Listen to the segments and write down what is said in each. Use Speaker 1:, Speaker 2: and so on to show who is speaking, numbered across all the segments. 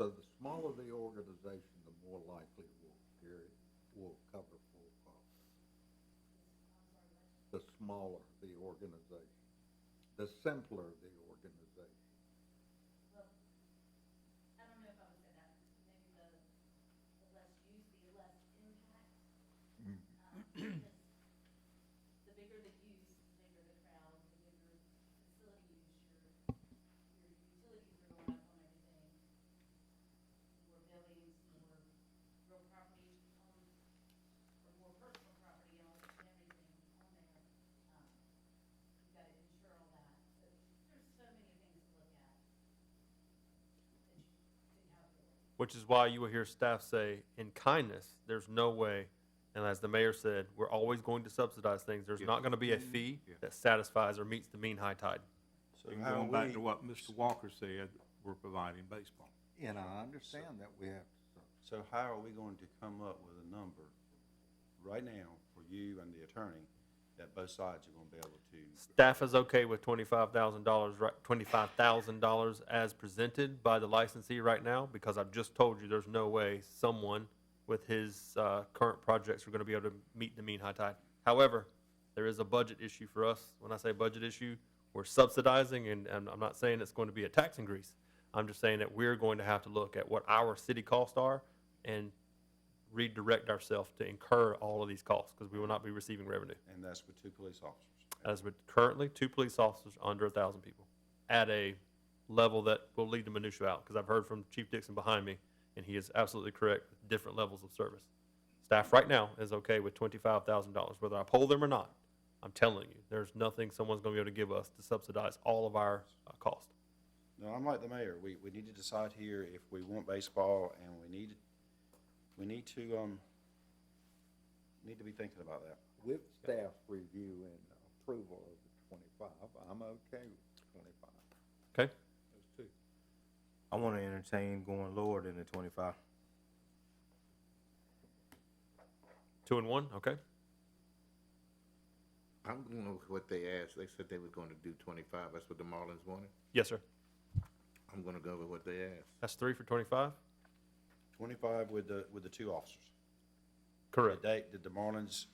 Speaker 1: Um,
Speaker 2: smaller the organization, the more likely we'll carry, we'll cover full costs. The smaller the organization, the simpler the organization.
Speaker 1: I don't know if I would say that, maybe the, the less use, the less impact.
Speaker 2: Mm.
Speaker 1: Um, because The bigger the use, the bigger the crowd, the bigger facility use, your, your utilities are going up on everything. More buildings, more real property on, or more personal property on everything on there. Um, You've got to insure all that, so there's so many things to look at that you didn't have before.
Speaker 3: Which is why you will hear staff say, in kindness, there's no way, and as the mayor said, we're always going to subsidize things. There's
Speaker 4: Yeah.
Speaker 3: not gonna be a fee
Speaker 4: Yeah.
Speaker 3: that satisfies or meets the mean high tide.
Speaker 5: So
Speaker 4: And
Speaker 5: how
Speaker 4: going back
Speaker 5: we-
Speaker 4: to what Mr. Walker said, we're providing baseball.
Speaker 2: And I understand that we have to, sub-
Speaker 5: So how are we going to come up with a number right now for you and the attorney that both sides are gonna be able to?
Speaker 3: Staff is okay with twenty-five thousand dollars, right, twenty-five thousand dollars as presented by the licensee right now, because I've just told you, there's no way someone with his, uh, current projects are gonna be able to meet the mean high tide. However, there is a budget issue for us. When I say budget issue, we're subsidizing, and, and I'm not saying it's going to be a tax increase. I'm just saying that we're going to have to look at what our city costs are and redirect ourselves to incur all of these costs, because we will not be receiving revenue.
Speaker 5: And that's with two police officers.
Speaker 3: As with currently, two police officers under a thousand people at a level that will lead to minutia out, because I've heard from Chief Dixon behind me, and he is absolutely correct, with different levels of service. Staff right now is okay with twenty-five thousand dollars, whether I poll them or not. I'm telling you, there's nothing someone's gonna be able to give us to subsidize all of our uh, cost.
Speaker 5: No, I'm like the mayor, we, we need to decide here if we want baseball and we need, we need to, um, need to be thinking about that.
Speaker 2: with staff's review and approval of the twenty-five, I'm okay with twenty-five.
Speaker 3: Okay?
Speaker 6: I wanna entertain going lower than the twenty-five.
Speaker 3: Two and one, okay?
Speaker 7: I'm going with what they asked. They said they was going to do twenty-five. That's what the Marlins wanted.
Speaker 3: Yes, sir.
Speaker 7: I'm gonna go with what they asked.
Speaker 3: That's three for twenty-five?
Speaker 5: Twenty-five with the, with the two officers. The
Speaker 3: Correct.
Speaker 5: date, did the Marlins,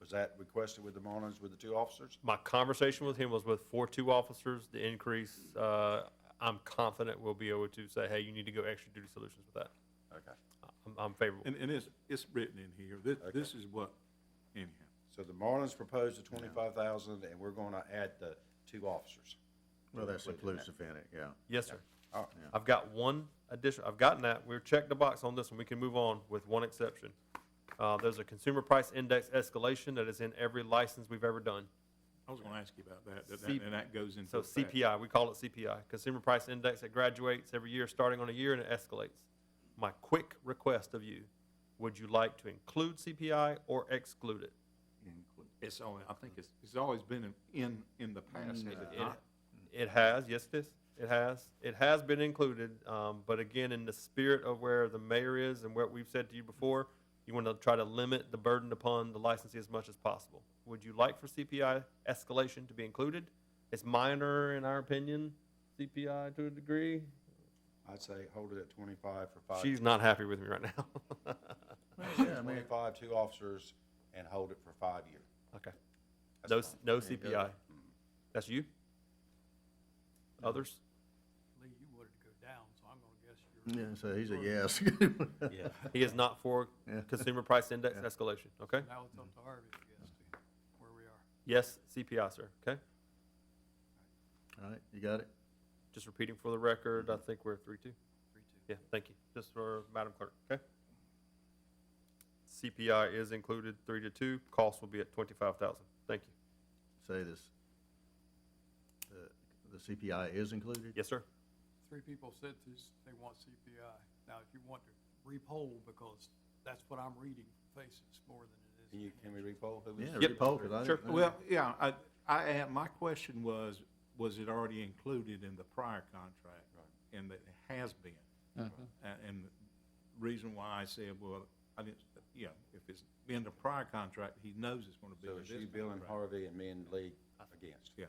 Speaker 5: was that requested with the Marlins with the two officers?
Speaker 3: My conversation with him was with four two officers, the increase, uh, I'm confident we'll be able to say, hey, you need to go extra duty solutions with that.
Speaker 5: Okay.
Speaker 3: I'm, I'm favorable.
Speaker 4: And, and it's, it's written in here. This,
Speaker 5: Okay.
Speaker 4: this is what, anyhow.
Speaker 5: So the Marlins proposed the twenty-five thousand, and we're gonna add the two officers.
Speaker 7: Well, that's inclusive in it, yeah.
Speaker 3: Yes, sir.
Speaker 5: All
Speaker 7: Oh.
Speaker 5: right.
Speaker 3: I've got one addition, I've gotten that, we've checked the box on this one, we can move on with one exception. Uh, there's a consumer price index escalation that is in every license we've ever done.
Speaker 4: I was gonna ask you about that, that-
Speaker 3: C-
Speaker 4: that, and that goes into.
Speaker 3: So
Speaker 4: effect.
Speaker 3: CPI, we call it CPI, Consumer Price Index, it graduates every year, starting on a year, and it escalates. My quick request of you, would you like to include CPI or exclude it?
Speaker 4: It's only, I think it's, it's always been in- in, in the past, is it
Speaker 3: It-
Speaker 5: Uh-huh.
Speaker 4: not?
Speaker 3: It has, yes, it is, it has, it has been included, um, but again, in the spirit of where the mayor is and what we've said to you before, you want to try to limit the burden upon the licensee as much as possible. Would you like for CPI escalation to be included? It's minor, in our opinion, CPI to a degree.
Speaker 5: I'd say hold it at twenty-five for five.
Speaker 3: She's not happy with me right now.
Speaker 5: Twenty-five, two officers, and hold it for five year.
Speaker 3: Okay.
Speaker 5: That's
Speaker 3: No,
Speaker 5: fine.
Speaker 3: c- no CPI. That's you? Others?
Speaker 8: Lee, you wanted to go down, so I'm gonna guess you're.
Speaker 7: Yeah, so he's a yes.
Speaker 5: Yeah.
Speaker 3: He is not for consumer price index escalation, okay?
Speaker 8: Now it's up to Harvey, I guess, to where we are.
Speaker 3: Yes, CPI, sir, okay?
Speaker 7: All right, you got it?
Speaker 3: Just repeating for the record, I think we're three, two.
Speaker 8: Three, two.
Speaker 3: Yeah, thank you. Just for Madam Clerk, okay? CPI is included, three to two. Cost will be at twenty-five thousand. Thank you.
Speaker 7: Say this. The- The CPI is included?
Speaker 3: Yes, sir?
Speaker 8: Three people said this, they want CPI. Now, if you want to repoll, because that's what I'm reading faces more than it is.
Speaker 5: Can you, can we repoll? Who was-
Speaker 7: Yeah,
Speaker 3: Yep.
Speaker 7: Paul, 'cause I didn't
Speaker 3: Sure.
Speaker 7: think-
Speaker 4: Well, yeah, I, I, had- my question was, was it already included in the prior contract? And that it has been. And, and the reason why I said, well, I didn't, you know, if it's in the prior contract, he knows it's gonna be
Speaker 5: So
Speaker 4: in
Speaker 5: it's
Speaker 4: this
Speaker 5: you, Bill, and
Speaker 4: contract.
Speaker 5: Harvey, and me and Lee against.
Speaker 4: Yeah.